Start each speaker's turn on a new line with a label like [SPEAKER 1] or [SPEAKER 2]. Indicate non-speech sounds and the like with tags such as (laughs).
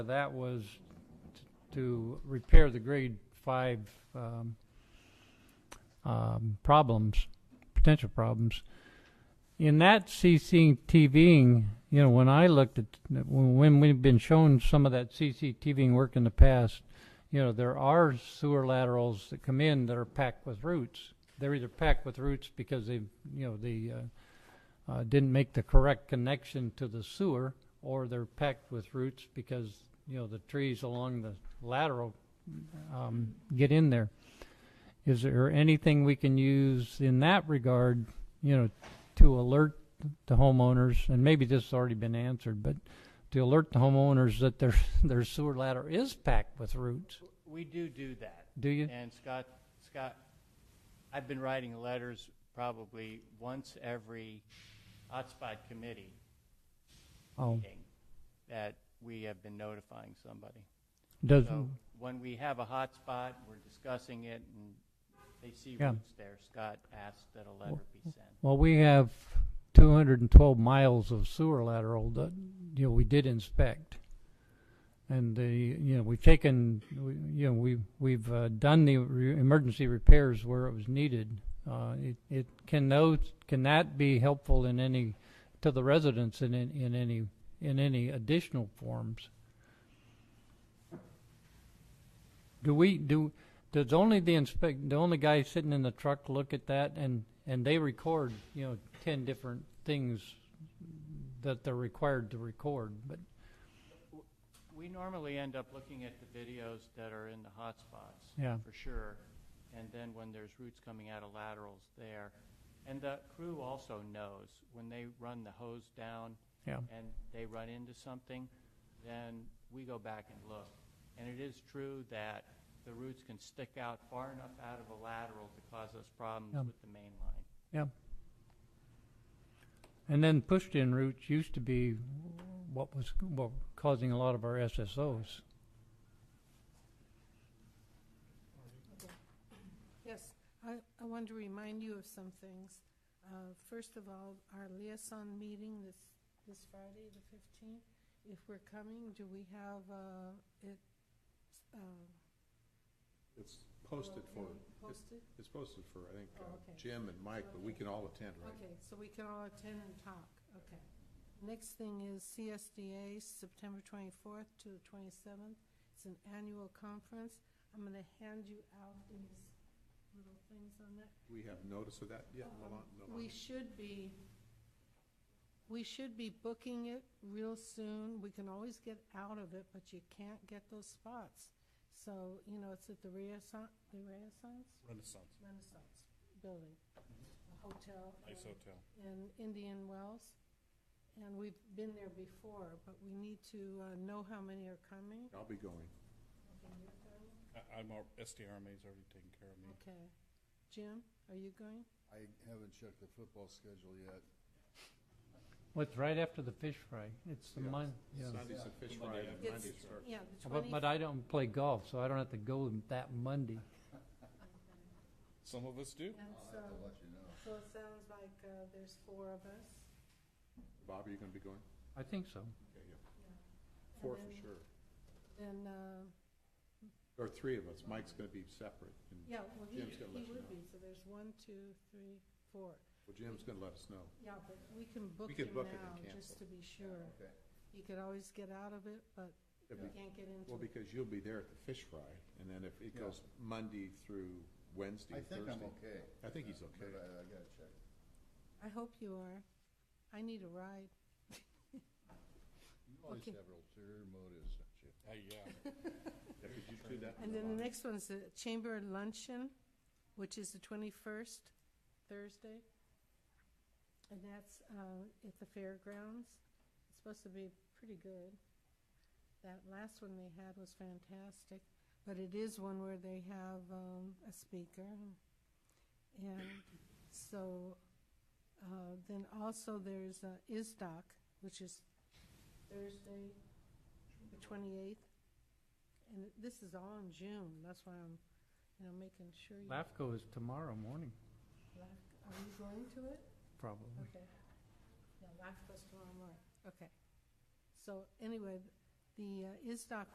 [SPEAKER 1] That was t- to repair the grade five um, um, problems, potential problems. In that CCTVing, you know, when I looked at, when when we've been shown some of that CCTVing work in the past, you know, there are sewer laterals that come in that are packed with roots. They're either packed with roots because they, you know, they uh, uh, didn't make the correct connection to the sewer, or they're packed with roots because, you know, the trees along the lateral um, get in there. Is there anything we can use in that regard, you know, to alert the homeowners, and maybe this has already been answered, but to alert the homeowners that their, (laughs) their sewer ladder is packed with roots?
[SPEAKER 2] We do do that.
[SPEAKER 1] Do you?
[SPEAKER 2] And Scott, Scott, I've been writing letters probably once every hotspot committee
[SPEAKER 1] Oh,
[SPEAKER 2] meeting that we have been notifying somebody.
[SPEAKER 1] does,
[SPEAKER 2] So when we have a hotspot, we're discussing it and they see
[SPEAKER 1] Yeah.
[SPEAKER 2] roots there. Scott asked that a letter be sent.
[SPEAKER 1] well, we have two hundred and twelve miles of sewer lateral that, you know, we did inspect. And the, you know, we've taken, we- you know, we, we've, uh, done the re- emergency repairs where it was needed. Uh, it, it, can those, can that be helpful in any, to the residents in, in, in any, in any additional forms? Do we, do, does only the inspect, the only guy sitting in the truck look at that and, and they record, you know, ten different things that they're required to record, but,
[SPEAKER 2] We normally end up looking at the videos that are in the hotspots.
[SPEAKER 1] yeah,
[SPEAKER 2] for sure. And then when there's roots coming out of laterals there. And the crew also knows when they run the hose down
[SPEAKER 1] yeah.
[SPEAKER 2] and they run into something, then we go back and look. And it is true that the roots can stick out far enough out of a lateral to cause us problems
[SPEAKER 1] Yeah.
[SPEAKER 2] with the main line.
[SPEAKER 1] And then pushed-in routes used to be what was, what causing a lot of our SSOs.
[SPEAKER 3] Yes, I, I wanted to remind you of some things. Uh, First of all, our liaison meeting this, this Friday, the fifteenth, if we're coming, do we have, uh, it, um,
[SPEAKER 4] It's posted for, it's-
[SPEAKER 3] Posted?
[SPEAKER 4] it's posted for, I think, uh,
[SPEAKER 3] Oh, okay.
[SPEAKER 4] Jim and Mike, but we can all attend, right?
[SPEAKER 3] Okay, so we can all attend and talk, okay. Next thing is CSDA, September twenty-fourth to the twenty-seventh. It's an annual conference. I'm gonna hand you out these little things on that.
[SPEAKER 4] We have notice of that yet, Milan? No.
[SPEAKER 3] Um, We should be, we should be booking it real soon. We can always get out of it, but you can't get those spots. So, you know, it's at the Renaissance, the Renaissance?
[SPEAKER 5] Renaissance,
[SPEAKER 3] Renaissance Building,
[SPEAKER 5] Mm-hmm.
[SPEAKER 3] a hotel.
[SPEAKER 5] nice
[SPEAKER 3] in-
[SPEAKER 5] hotel.
[SPEAKER 3] In Indian Wells. And we've been there before, but we need to uh, know how many are coming.
[SPEAKER 4] I'll be going.
[SPEAKER 5] I, I'm, al- SDRMA's already taken care of me.
[SPEAKER 3] Okay. Jim, are you going?
[SPEAKER 6] I haven't checked the football schedule yet.
[SPEAKER 1] What's right after the fish fry, it's the
[SPEAKER 4] Yeah.
[SPEAKER 1] Mon, yeah.
[SPEAKER 4] Sunday's a fish fry and
[SPEAKER 3] It's-
[SPEAKER 4] Monday's church.
[SPEAKER 3] Yeah, the
[SPEAKER 1] But,
[SPEAKER 3] twenty,
[SPEAKER 1] but I don't play golf, so I don't have to go that Monday.
[SPEAKER 5] Some of us do.
[SPEAKER 3] and so, so it sounds like uh, there's four of us.
[SPEAKER 4] Bob, are you going to be going?
[SPEAKER 1] I think so.
[SPEAKER 4] Okay, yeah.
[SPEAKER 3] And
[SPEAKER 4] Four for
[SPEAKER 3] then-
[SPEAKER 4] sure.
[SPEAKER 3] Then, uh,
[SPEAKER 4] Or three of us. Mike's going to be separate. and-
[SPEAKER 3] yeah, well, he,
[SPEAKER 4] Jim's gonna
[SPEAKER 3] he
[SPEAKER 4] let you
[SPEAKER 3] would
[SPEAKER 4] know.
[SPEAKER 3] be, so there's one, two, three, four.
[SPEAKER 4] Well, Jim's going to let us know.
[SPEAKER 3] Yeah, but we can book
[SPEAKER 4] can
[SPEAKER 3] him
[SPEAKER 4] book it and
[SPEAKER 3] now,
[SPEAKER 4] cancel.
[SPEAKER 3] just to be sure.
[SPEAKER 6] okay.
[SPEAKER 3] You could always get out of it, but
[SPEAKER 4] If
[SPEAKER 3] you
[SPEAKER 4] we-
[SPEAKER 3] can't get into
[SPEAKER 4] Well,
[SPEAKER 3] it.
[SPEAKER 4] because you'll be there at the fish fry, and then if it
[SPEAKER 6] Yeah.
[SPEAKER 4] goes Monday through Wednesday,
[SPEAKER 6] I
[SPEAKER 4] Thursday.
[SPEAKER 6] think I'm okay,
[SPEAKER 4] I think he's
[SPEAKER 6] but
[SPEAKER 4] okay.
[SPEAKER 6] I, I gotta check.
[SPEAKER 3] I hope you are. I need a ride.
[SPEAKER 6] You always
[SPEAKER 3] Okay.
[SPEAKER 6] have ulterior motives, don't you?
[SPEAKER 5] Uh, yeah.
[SPEAKER 4] Yeah, could you do that?
[SPEAKER 3] And then the next one's the Chamber Luncheon, which is the twenty-first, Thursday. And that's, uh, at the fairgrounds. It's supposed to be pretty good. That last one they had was fantastic, but it is one where they have, um, a speaker. And so, uh, then also there's, uh, ISDOC, which is Thursday, the twenty-eighth. And this is all in June, that's why I'm, you know, making sure you.
[SPEAKER 1] LAFCO is tomorrow morning,
[SPEAKER 3] Laf- Are you going to it?
[SPEAKER 1] probably.
[SPEAKER 3] Okay. Yeah, LAFCO's tomorrow morning, okay. So anyway, the uh, ISDOC